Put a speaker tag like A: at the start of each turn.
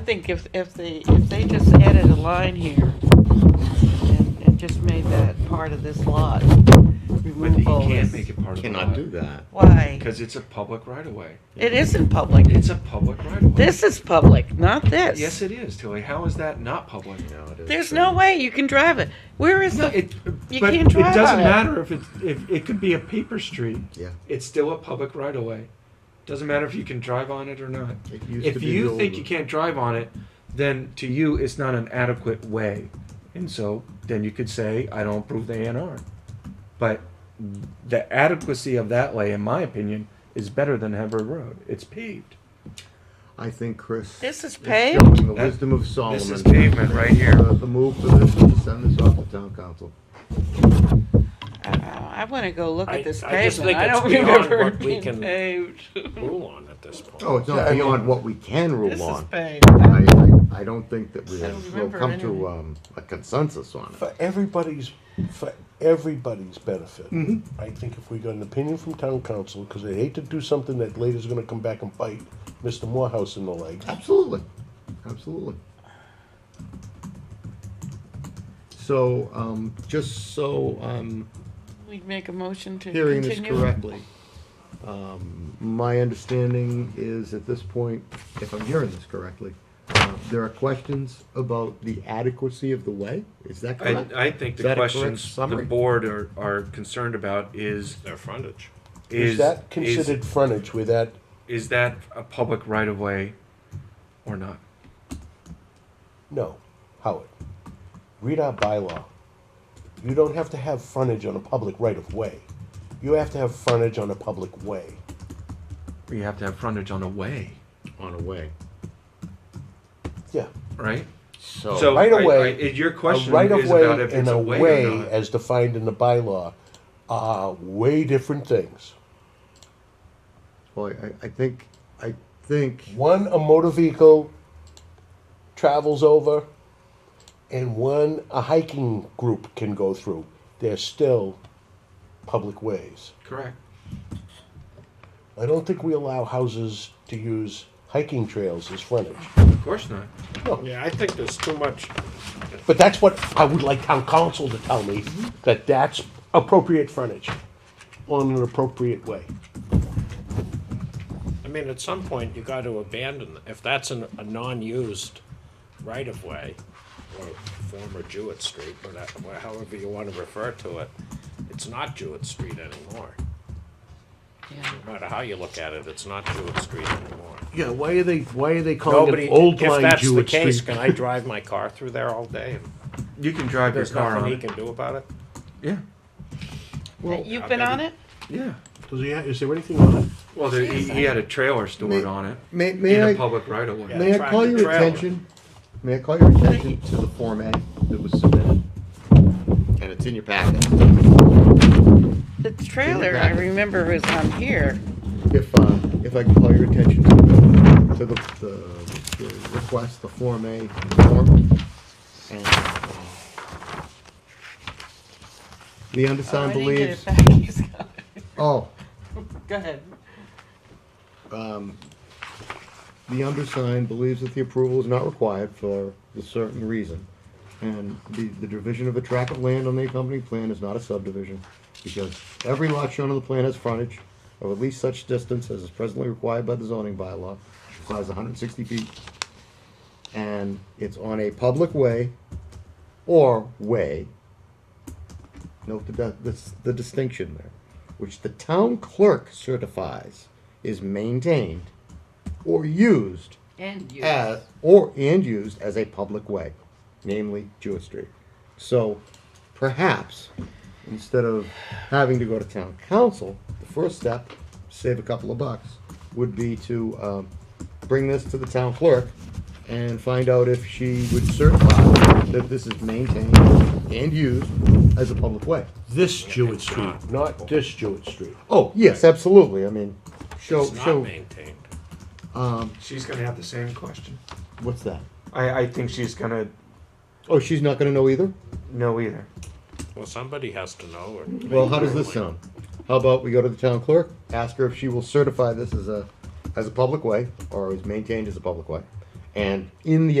A: think if, if they, if they just added a line here and, and just made that part of this lot
B: But you
A: removable
B: can't
A: is-
B: make it part of the
C: Cannot do that.
A: Why?
B: Because it's a public right of way.
A: It isn't public.
B: It's a public right of way.
A: This is public, not this.
B: Yes, it is, Tilly. How is that not public?
C: No, it is
A: There's
C: true.
A: no way you can drive it. Where is
B: No,
A: the,
B: it,
A: You
B: but
A: can't
B: it
A: drive on
B: doesn't
A: it.
B: matter if it's, if, it could be a paper street.
C: Yeah.
B: It's still a public right of way. Doesn't matter if you can drive on it or not.
C: It used to
B: If
C: be
B: you
C: the
B: think
C: old-
B: you can't drive on it, then to you, it's not an adequate way. And so then you could say, I don't approve the A and R. But the adequacy of that way, in my opinion, is better than Hever Road. It's paved.
C: I think Chris.
A: This is
C: is
A: paved?
C: showing The
B: That-
C: wisdom of Solomon.
B: This is pavement right here.
C: Uh, The move for this is to send this off to town council.
A: I, I wanna go look
D: I-
A: at this
D: I just
A: pavement.
D: think
A: I
D: it's
A: don't
D: beyond
A: remember
D: what
A: it
D: we
A: being
D: can-
A: paved.
D: rule on at this point.
C: Oh, it's
E: Yeah, I
C: not
E: mean-
C: beyond what we can
A: This
C: rule
A: is
C: on.
A: paved.
C: I, I, I don't think that we
A: I don't
C: have, we'll
A: remember it
C: come to,
A: anyway.
C: um, a consensus on it.
E: For everybody's, for everybody's benefit,
B: Mm-hmm.
E: I think if we got an opinion from town council, because they hate to do something that later's gonna come back and bite Mr. Morehouse in the leg.
C: Absolutely, absolutely. So, um, just so um, I'm
A: We'd make a motion to
C: hearing this
A: continue.
C: correctly, um, my understanding is at this point, if I'm hearing this correctly, uh, there are questions about the adequacy of the way, is that
B: I,
C: correct?
B: I think
C: Is
B: the
C: that a correct
B: questions the
C: summary?
B: board are, are concerned about is,
D: Their frontage.
B: is.
E: Is that considered frontage with that,
B: Is that a public right of way or not?
E: no, Howard, read our bylaw. You don't have to have frontage on a public right of way. You have to have frontage on a public way.
B: You have to have frontage on a way,
C: On a way,
E: Yeah.
B: right?
C: so.
B: So
E: right
B: I-
E: of way,
B: I- it- your question
E: a right of
B: is
E: way
B: about if
E: and
B: it's
E: a
B: a way,
E: way
B: or not.
E: as defined in the bylaw are way different things.
C: Well, I, I think, I think,
E: One a motor vehicle travels over, and one a hiking group can go through. They're still public ways.
B: correct.
E: I don't think we allow houses to use hiking trails as frontage.
B: Of course not.
D: Yeah, I think there's too much.
E: But that's what I would like town council to tell me, that that's appropriate frontage on an appropriate way.
D: I mean, at some point, you got to abandon, if that's an, a non-used right-of-way, or former Jewett Street, or that- or however you want to refer to it, it's not Jewett Street anymore.
A: Yeah.
D: No matter how you look at it, it's not Jewett Street anymore.
E: Yeah, why are they, why are they
D: Nobody,
E: old
D: if
E: line
D: that's the
E: Jewett
D: case,
E: Street?
D: can I drive my car through there all day? and
B: You can drive your
D: There's
B: car
D: nothing
B: on
D: he
B: it.
D: can do about it?
B: Yeah,
A: You've been on it?
B: yeah.
E: Does he, ha- is there anything on it?
B: Well, there, he, he had a trailer stored
C: May-
B: on it
C: may,
B: in
C: may
B: a
C: I,
B: public right of way.
C: may I
D: Tractor
C: call your
D: trailer.
C: attention, may I call your attention to the Form A that was submitted? And it's in your packet.
A: The trailer, I
C: back.
A: remember, was on here.
C: If, uh, if I can call your attention to the, to the, the, the request, the Form A form. And, uh, The
A: Oh, I
C: undersigned
A: didn't get
C: believes,
A: it back. He's got it.
C: oh,
A: Go ahead.
C: the undersigned believes that the approval is not required for the certain reason. And the, the division of a tract of land on the accompanying plan is not a subdivision, because every lot shown on the plan has frontage of at least such distance as is presently required by the zoning bylaw, size hundred and sixty feet. And it's on a public way or way. Note the, di- this- the distinction there, which the town clerk certifies is maintained or used
A: And you.
C: as, or, and used as a public way, namely Jewett Street. So perhaps, instead of having to go to town council, the first step, save a couple of bucks, would be to, um, bring this to the town clerk and find out if she would certify that this is maintained and used as a public way.
E: This Jewett Street, not this Jewett Street.
C: Oh, yes, absolutely, I mean, show,
D: It's not
C: show,
D: maintained.
B: She's gonna have the same question.
C: what's that?
B: I, I think she's gonna
C: Oh, she's not gonna know either?
B: know either.
D: Well, somebody has to know. or-
C: Well, how does this sound? How about we go to the town clerk, ask her if she will certify this as a, as a public way, or is maintained as a public way? And in the